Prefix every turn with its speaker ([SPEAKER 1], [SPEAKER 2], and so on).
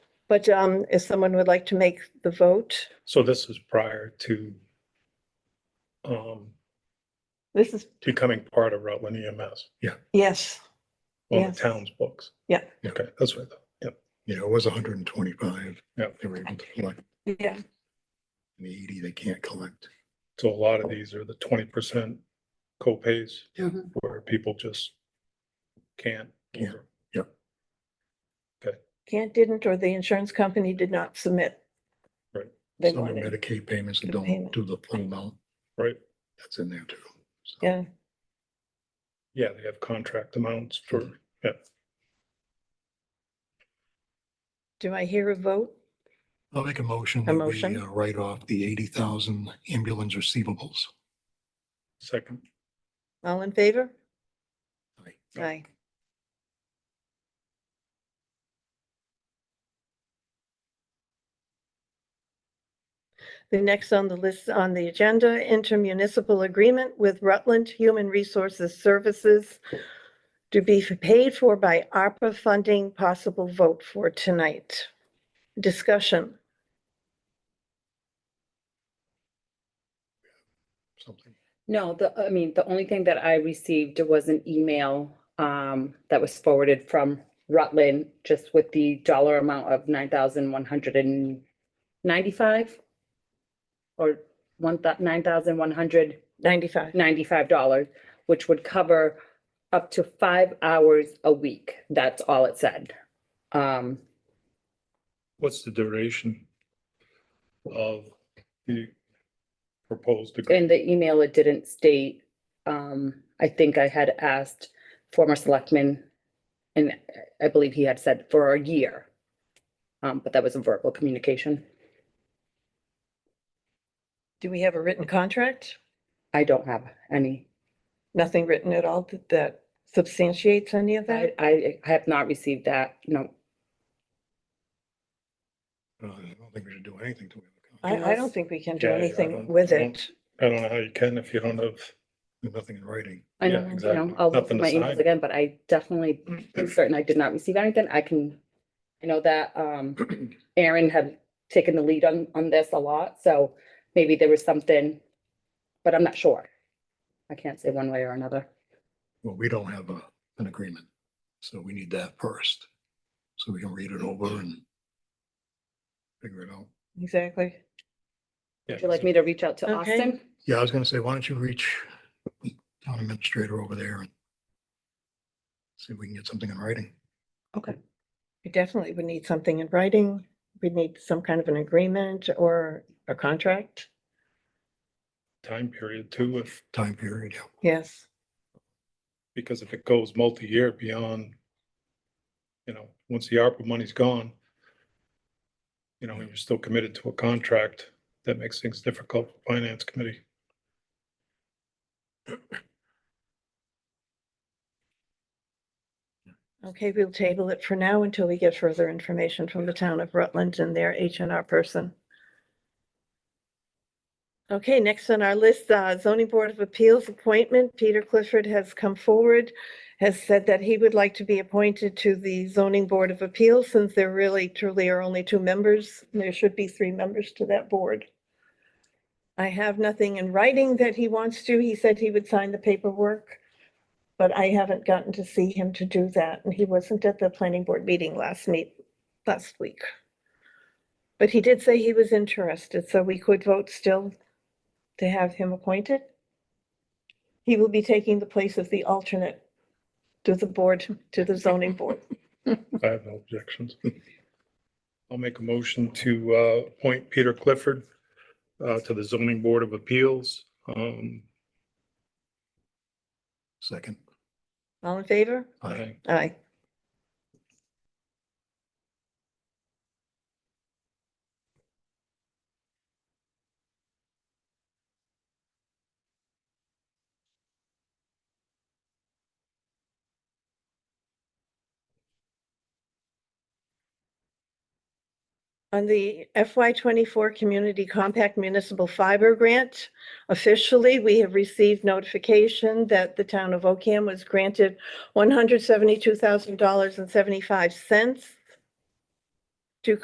[SPEAKER 1] But um, if someone would like to make the vote,
[SPEAKER 2] So this is prior to um,
[SPEAKER 1] this is,
[SPEAKER 2] becoming part of Rutland E EMS. Yeah.
[SPEAKER 1] yes,
[SPEAKER 2] On the
[SPEAKER 1] Yes.
[SPEAKER 2] town's books.
[SPEAKER 1] Yeah.
[SPEAKER 2] Okay, that's right. Yep.
[SPEAKER 3] You know, it was hundred and twenty-five.
[SPEAKER 2] Yep.
[SPEAKER 3] They were able to collect,
[SPEAKER 1] yeah,
[SPEAKER 3] and the eighty they can't collect.
[SPEAKER 2] So a lot of these are the twenty percent copays
[SPEAKER 1] Mm-hmm.
[SPEAKER 4] Mhm.
[SPEAKER 2] where people just can't.
[SPEAKER 3] Yeah.
[SPEAKER 2] or-
[SPEAKER 1] can't, didn't, or the insurance company did not submit.
[SPEAKER 2] Right.
[SPEAKER 1] They
[SPEAKER 3] Some are
[SPEAKER 1] wanted,
[SPEAKER 3] Medicaid payments that
[SPEAKER 1] the
[SPEAKER 3] don't
[SPEAKER 1] payment.
[SPEAKER 3] do the full amount,
[SPEAKER 2] Right?
[SPEAKER 3] that's in there too. So,
[SPEAKER 1] yeah,
[SPEAKER 2] Yeah, they have contract amounts for,
[SPEAKER 1] do I hear a vote?
[SPEAKER 3] I'll make a motion.
[SPEAKER 1] A
[SPEAKER 3] that we,
[SPEAKER 1] motion?
[SPEAKER 3] uh, Write off the eighty thousand ambulance receivables.
[SPEAKER 2] second,
[SPEAKER 1] All in favor?
[SPEAKER 3] Aye.
[SPEAKER 1] Aye. The next on the list, on the agenda, intermunicipal agreement with Rutland Human Resources Services to be paid for by ARPA funding, possible vote for tonight. Discussion.
[SPEAKER 3] something.
[SPEAKER 4] No, the, I mean, the only thing that I received was an email um, that was forwarded from Rutland, just with the dollar amount of nine thousand one hundred and ninety-five or one thou- nine thousand one hundred
[SPEAKER 1] 95.
[SPEAKER 4] ninety-five dollars, which would cover up to five hours a week. That's all it said. Um,
[SPEAKER 2] what's the duration of the proposed?
[SPEAKER 4] In
[SPEAKER 2] agreement?
[SPEAKER 4] the email, it didn't state, um, I think I had asked former selectman, and I believe he had said for a year. Um, but that was a verbal communication.
[SPEAKER 1] Do we have a written contract?
[SPEAKER 4] I don't have any,
[SPEAKER 1] Nothing written at all that- that substantiates any of
[SPEAKER 4] I,
[SPEAKER 1] that?
[SPEAKER 4] I I have not received that, no.
[SPEAKER 3] Uh, I don't think we should do anything to it.
[SPEAKER 1] I, I don't think we can do
[SPEAKER 2] Yeah, I
[SPEAKER 1] anything
[SPEAKER 2] don't-
[SPEAKER 1] with
[SPEAKER 2] I don't-
[SPEAKER 1] it.
[SPEAKER 2] I don't know how you can if you don't have,
[SPEAKER 3] Nothing in writing.
[SPEAKER 4] I
[SPEAKER 2] Yeah,
[SPEAKER 4] know, you
[SPEAKER 2] exactly.
[SPEAKER 4] know, I'll look
[SPEAKER 2] Nothing
[SPEAKER 4] at
[SPEAKER 2] to
[SPEAKER 4] my
[SPEAKER 2] sign.
[SPEAKER 4] emails again, but I definitely, am certain I did not receive anything. I can, I know that, um, Aaron had taken the lead on, on this a lot, so maybe there was something, but I'm not sure. I can't say one way or another.
[SPEAKER 3] Well, we don't have a, an agreement, so we need that first. So we can read it over and figure it out.
[SPEAKER 1] Exactly.
[SPEAKER 2] yeah,
[SPEAKER 4] Would you like me to reach out to
[SPEAKER 1] Okay.
[SPEAKER 4] Austin?
[SPEAKER 3] Yeah, I was gonna say, why don't you reach town administrator over there and see if we can get something in writing.
[SPEAKER 1] We definitely would need something in writing. We'd need some kind of an agreement or a contract.
[SPEAKER 2] time period too, if,
[SPEAKER 3] Time period, yeah.
[SPEAKER 1] Yes.
[SPEAKER 2] because if it goes multi-year beyond, you know, once the ARPA money's gone, you know, and you're still committed to a contract, that makes things difficult for finance committee.
[SPEAKER 1] Okay, we'll table it for now until we get further information from the town of Rutland and their H and R person. Okay, next on our list, uh, zoning board of appeals appointment. Peter Clifford has come forward, has said that he would like to be appointed to the zoning board of appeals since there really truly are only two members. There should be three members to that board. I have nothing in writing that he wants to. He said he would sign the paperwork. But I haven't gotten to see him to do that, and he wasn't at the planning board meeting last meet, last week. But he did say he was interested, so we could vote still to have him appointed. He will be taking the place of the alternate to the board, to the zoning board.
[SPEAKER 2] I have no objections. I'll make a motion to uh, appoint Peter Clifford uh, to the zoning board of appeals. Um,
[SPEAKER 3] Second.
[SPEAKER 1] All in favor?
[SPEAKER 2] I-
[SPEAKER 1] Aye. On the FY twenty-four Community Compact Municipal Fiber Grant, officially, we have received notification that the town of Ocam was granted one hundred seventy-two thousand dollars and seventy-five cents